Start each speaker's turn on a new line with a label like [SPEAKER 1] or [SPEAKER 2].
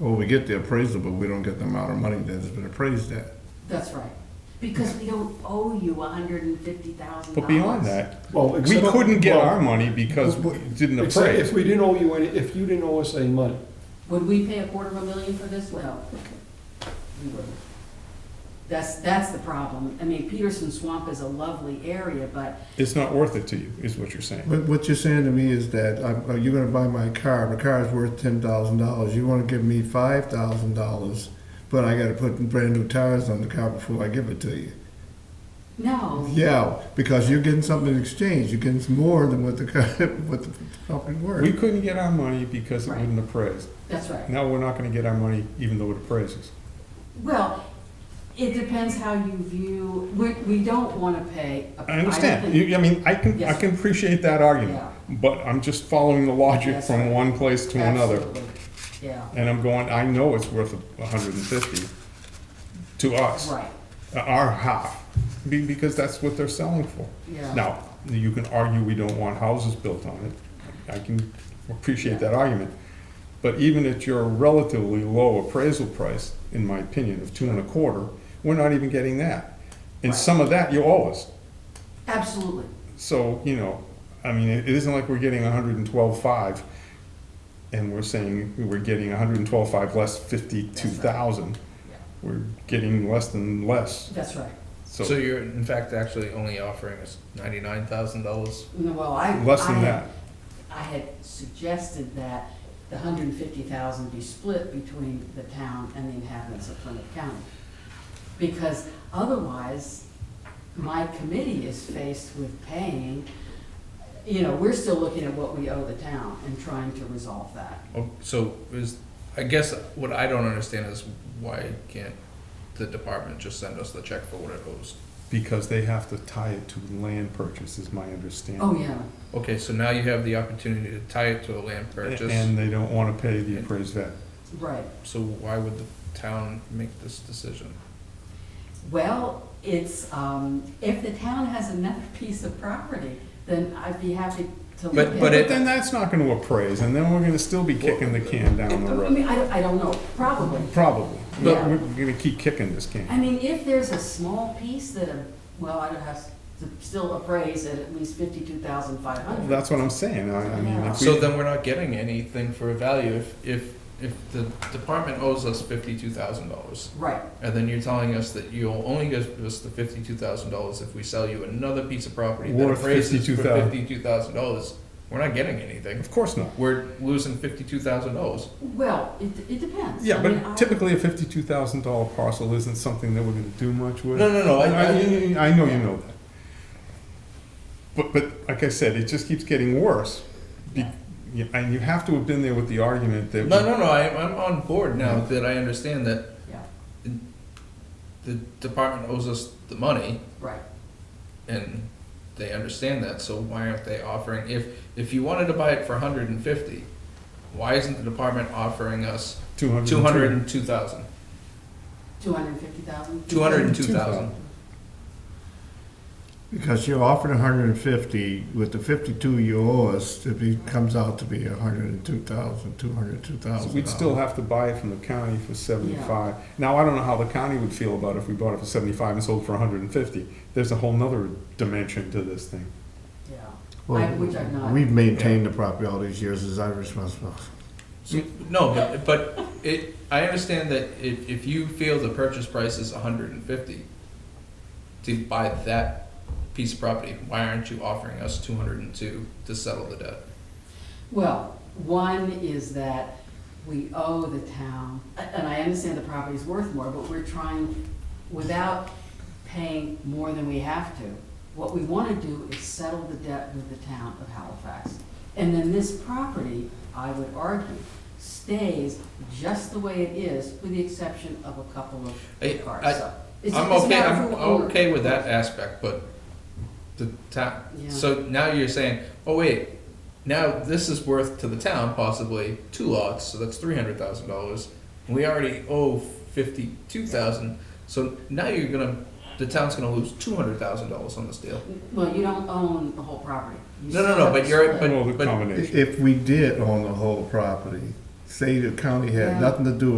[SPEAKER 1] Well, we get the appraisal, but we don't get the amount of money that has been appraised at.
[SPEAKER 2] That's right. Because we don't owe you hundred and fifty thousand dollars.
[SPEAKER 3] But beyond that,
[SPEAKER 4] Well,
[SPEAKER 3] we
[SPEAKER 4] except-
[SPEAKER 3] couldn't get
[SPEAKER 4] well,
[SPEAKER 3] our money because we didn't
[SPEAKER 4] Except
[SPEAKER 3] appraise.
[SPEAKER 4] if we didn't owe you any, if you didn't owe us any money.
[SPEAKER 2] Would we pay a quarter of a million for this? Well, we wouldn't. That's, that's the problem. I mean, Peterson Swamp is a lovely area, but
[SPEAKER 3] It's not worth it to you, is what you're saying.
[SPEAKER 1] What, what you're saying to me is that, I'm- uh, you're gonna buy my car, my car's worth ten thousand dollars, you wanna give me five thousand dollars, but I gotta put brand new tires on the car before I give it to you.
[SPEAKER 2] no.
[SPEAKER 1] Yeah, because you're getting something in exchange, you're getting more than what the car, what the property
[SPEAKER 3] We
[SPEAKER 1] worth.
[SPEAKER 3] couldn't get our money because it
[SPEAKER 2] Right.
[SPEAKER 3] wouldn't appraise.
[SPEAKER 2] That's right.
[SPEAKER 3] Now we're not gonna get our money even though it appraises.
[SPEAKER 2] Well, it depends how you view, we, we don't wanna pay. a-
[SPEAKER 3] I
[SPEAKER 2] don't
[SPEAKER 3] understand.
[SPEAKER 2] think-
[SPEAKER 3] You, I mean, I can, I
[SPEAKER 2] Yes.
[SPEAKER 3] can appreciate that argument,
[SPEAKER 2] Yeah.
[SPEAKER 3] but I'm just following the logic
[SPEAKER 2] That's
[SPEAKER 3] from
[SPEAKER 2] right.
[SPEAKER 3] one place to another.
[SPEAKER 2] Absolutely. Yeah,
[SPEAKER 3] And I'm going, I know it's worth a hundred and fifty to us,
[SPEAKER 2] right,
[SPEAKER 3] our half, be- because that's what they're selling for.
[SPEAKER 2] yeah.
[SPEAKER 3] Now, you can argue we don't want houses built on it. I can appreciate that argument. But even at your relatively low appraisal price, in my opinion, of two and a quarter, we're not even getting that. And
[SPEAKER 2] Right.
[SPEAKER 3] some of that you owe us.
[SPEAKER 2] Absolutely.
[SPEAKER 3] So, you know, I mean, it it isn't like we're getting hundred and twelve-five and we're saying we're getting hundred and twelve-five less fifty-two thousand.
[SPEAKER 2] Yeah.
[SPEAKER 3] We're getting less than less,
[SPEAKER 2] That's right.
[SPEAKER 5] So you're in fact actually only offering us ninety-nine thousand dollars?
[SPEAKER 2] No, Well, I.
[SPEAKER 3] Less
[SPEAKER 2] I
[SPEAKER 3] than
[SPEAKER 2] had-
[SPEAKER 3] that.
[SPEAKER 2] I had suggested that the hundred and fifty thousand be split between the town and the inhabitants of Plymouth County. Because otherwise, my committee is faced with paying, you know, we're still looking at what we owe the town and trying to resolve that.
[SPEAKER 5] Oh, So is, I guess what I don't understand is why can't the department just send us the check for what it owes?
[SPEAKER 3] because they have to tie it to land purchase, is my understanding.
[SPEAKER 2] Oh, yeah,
[SPEAKER 5] Okay, so now you have the opportunity to tie it to a land purchase,
[SPEAKER 3] And they don't wanna pay the appraised value.
[SPEAKER 2] right.
[SPEAKER 5] so why would the town make this decision?
[SPEAKER 2] Well, it's, um, if the town has another piece of property, then I'd be happy to look at it.
[SPEAKER 5] But
[SPEAKER 3] But
[SPEAKER 5] it-
[SPEAKER 3] then that's not gonna appraise, and then we're gonna still be kicking the can down the
[SPEAKER 2] I
[SPEAKER 3] road.
[SPEAKER 2] mean, I, I don't know, probably.
[SPEAKER 3] Probably, but
[SPEAKER 2] Yeah.
[SPEAKER 3] we're gonna keep kicking this can.
[SPEAKER 2] I mean, if there's a small piece that, a- well, I'd have to still appraise at at least fifty-two thousand five
[SPEAKER 3] Well,
[SPEAKER 2] hundred.
[SPEAKER 3] That's what I'm saying, I, I mean, if we.
[SPEAKER 5] So then we're not getting anything for a value if, if, if the department owes us fifty-two thousand dollars.
[SPEAKER 2] Right,
[SPEAKER 5] And then you're telling us that you'll only give us the fifty-two thousand dollars if we sell you another piece of property that
[SPEAKER 3] Worth
[SPEAKER 5] appraises for
[SPEAKER 3] $52,000.
[SPEAKER 5] fifty-two thousand dollars. We're not getting anything.
[SPEAKER 3] Of course not.
[SPEAKER 5] We're losing fifty-two thousand dollars.
[SPEAKER 2] well, it, it depends.
[SPEAKER 3] Yeah,
[SPEAKER 2] I mean, I-
[SPEAKER 3] but typically a fifty-two thousand dollar parcel isn't something that we're gonna do much with.
[SPEAKER 5] No, no, no, I- I-
[SPEAKER 3] I know you know that. But, but like I said, it just keeps getting worse. Be- yeah, And you have to have been there with the argument that.
[SPEAKER 5] No, no, no, I, I'm on board now that I understand that
[SPEAKER 2] Yeah,
[SPEAKER 5] the department owes us the money
[SPEAKER 2] right,
[SPEAKER 5] and they understand that, so why aren't they offering, if, if you wanted to buy it for hundred and fifty, why isn't the department offering us
[SPEAKER 3] Two hundred.
[SPEAKER 5] two hundred and two thousand?
[SPEAKER 2] two hundred and fifty thousand?
[SPEAKER 5] Two hundred and two thousand?
[SPEAKER 1] Because you're offered a hundred and fifty, with the fifty-two you owe us, it be- comes out to be a hundred and two thousand, two hundred and two
[SPEAKER 3] So
[SPEAKER 1] thousand.
[SPEAKER 3] We'd still have to buy it from the county for seventy-five. Now, I don't know how the county would feel about if we bought it for seventy-five and sold for hundred and fifty. There's a whole nother dimension to this thing.
[SPEAKER 2] Yeah, I-
[SPEAKER 1] Well,
[SPEAKER 2] which I'm not.
[SPEAKER 1] We've maintained the property all these years as our responsibility.
[SPEAKER 5] So- No, but, but it, I understand that if, if you feel the purchase price is hundred and fifty to buy that piece of property, why aren't you offering us two hundred and two to settle the debt?
[SPEAKER 2] Well, one is that we owe the town, and I understand the property's worth more, but we're trying, without paying more than we have to, what we want to do is settle the debt with the town of Halifax. And then this property, I would argue, stays just the way it is, with the exception of a couple
[SPEAKER 5] I-
[SPEAKER 2] of cars.
[SPEAKER 5] I,
[SPEAKER 2] It's-
[SPEAKER 5] I'm
[SPEAKER 2] it's
[SPEAKER 5] okay,
[SPEAKER 2] not
[SPEAKER 5] I'm
[SPEAKER 2] for owner.
[SPEAKER 5] okay with that aspect, but the town,
[SPEAKER 2] Yeah.
[SPEAKER 5] so now you're saying, oh wait, now this is worth to the town possibly two lots, so that's three hundred thousand dollars. We already owe fifty-two thousand, so now you're gonna, the town's gonna lose two hundred thousand dollars on this deal.
[SPEAKER 2] Well, you don't own the whole property. You
[SPEAKER 5] No, no,
[SPEAKER 2] still
[SPEAKER 5] no,
[SPEAKER 2] have
[SPEAKER 5] but
[SPEAKER 2] to
[SPEAKER 5] you're-
[SPEAKER 2] split.
[SPEAKER 5] But-
[SPEAKER 3] Well, the
[SPEAKER 5] but-
[SPEAKER 3] combination.
[SPEAKER 1] If we did own the whole property, say the county had
[SPEAKER 2] Yeah.
[SPEAKER 1] nothing to do